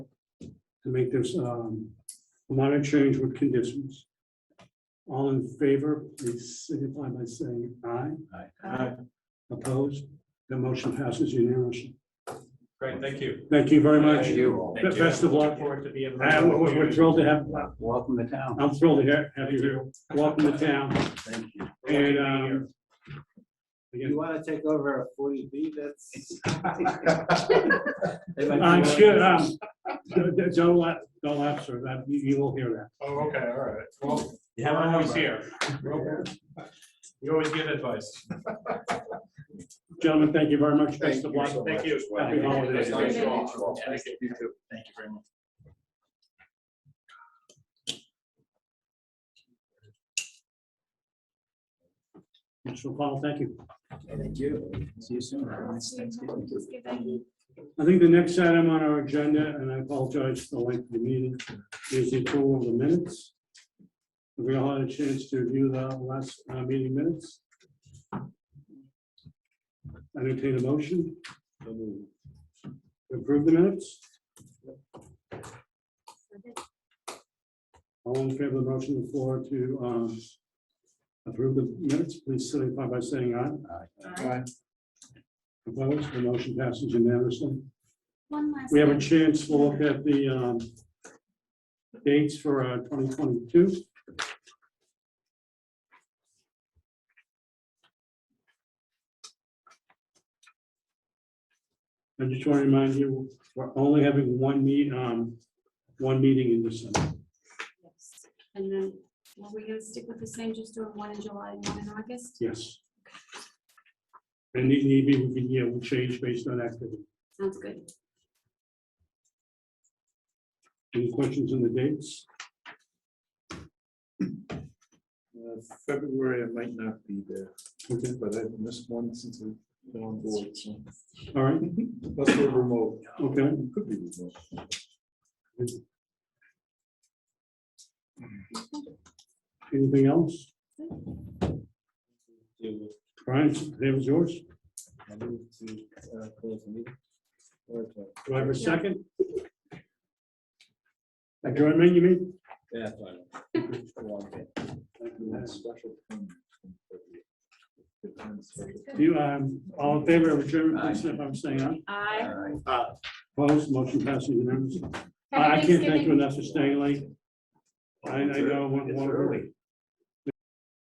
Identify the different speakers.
Speaker 1: to make this um, minor change with conditions. All in favor, please signify by saying aye.
Speaker 2: Aye.
Speaker 1: Opposed? The motion passes unanimously.
Speaker 2: Great, thank you.
Speaker 1: Thank you very much.
Speaker 3: Thank you.
Speaker 2: Thank you.
Speaker 1: Best of luck.
Speaker 2: Forward to be able
Speaker 1: Uh,
Speaker 2: to-
Speaker 1: We're we're thrilled to have,
Speaker 3: Welcome to town.
Speaker 1: I'm thrilled to ha- have you here. Welcome to town.
Speaker 3: Thank you.
Speaker 1: And um, again,
Speaker 3: You want to take over a forty B, that's.
Speaker 1: I'm sure, um, don't- don't laugh, don't laugh, sir. That- You you will hear that.
Speaker 2: Oh, okay, all right. Well,
Speaker 3: You have
Speaker 2: I'm
Speaker 3: my
Speaker 2: always
Speaker 3: number.
Speaker 2: here. You always give advice.
Speaker 1: Gentlemen, thank you very much. Best
Speaker 4: Thank
Speaker 1: of
Speaker 4: you
Speaker 1: luck.
Speaker 4: so
Speaker 2: Thank
Speaker 4: much.
Speaker 2: you.
Speaker 4: as well.
Speaker 1: Happy holidays.
Speaker 4: Nice to meet you all.
Speaker 2: Thank you.
Speaker 4: You too.
Speaker 2: Thank you very much.
Speaker 1: Mr. Paul, thank you.
Speaker 3: Thank you. See you soon. Have a nice Thanksgiving.
Speaker 1: I think the next item on our agenda, and I apologize for the length of the meeting, is the approval of the minutes. Have we all had a chance to review the last uh, meeting minutes? Entertain a motion. Approve the minutes. All in favor of the motion on the floor to um, approve the minutes, please signify by saying aye. Opposed, the motion passes unanimously.
Speaker 5: One last.
Speaker 1: We have a
Speaker 5: thing.
Speaker 1: chance to look at the um, dates for uh, 2022. I just want to remind you, we're only having one meet, um, one meeting in December.
Speaker 5: Yes. And then, were we gonna stick with the same, just doing one in July and one in August?
Speaker 1: Yes. And maybe we can, yeah, we'll change based on activity.
Speaker 5: Sounds good.
Speaker 1: Any questions on the dates?
Speaker 4: Uh, February, I might not be there,
Speaker 1: Okay,
Speaker 4: but I've missed one since I've been on board. so.
Speaker 1: all right,
Speaker 4: Let's go remote.
Speaker 1: okay.
Speaker 4: Could be remote.
Speaker 1: Anything else? Brian, that was yours.
Speaker 4: I move to, uh, close the meeting. Okay.
Speaker 1: Do I have a second? Adjournment, you mean?
Speaker 4: Yeah, fine. It's a long day. Thank you. That's special. Good times, special.
Speaker 1: Do you, um, all in favor of adjournment,
Speaker 3: Aye.
Speaker 1: please, if I'm saying aye?
Speaker 5: I.
Speaker 1: Opposed, motion passes unanimously. I I can't thank you enough for staying late. I, I know, one,
Speaker 3: It's
Speaker 1: one,
Speaker 3: early.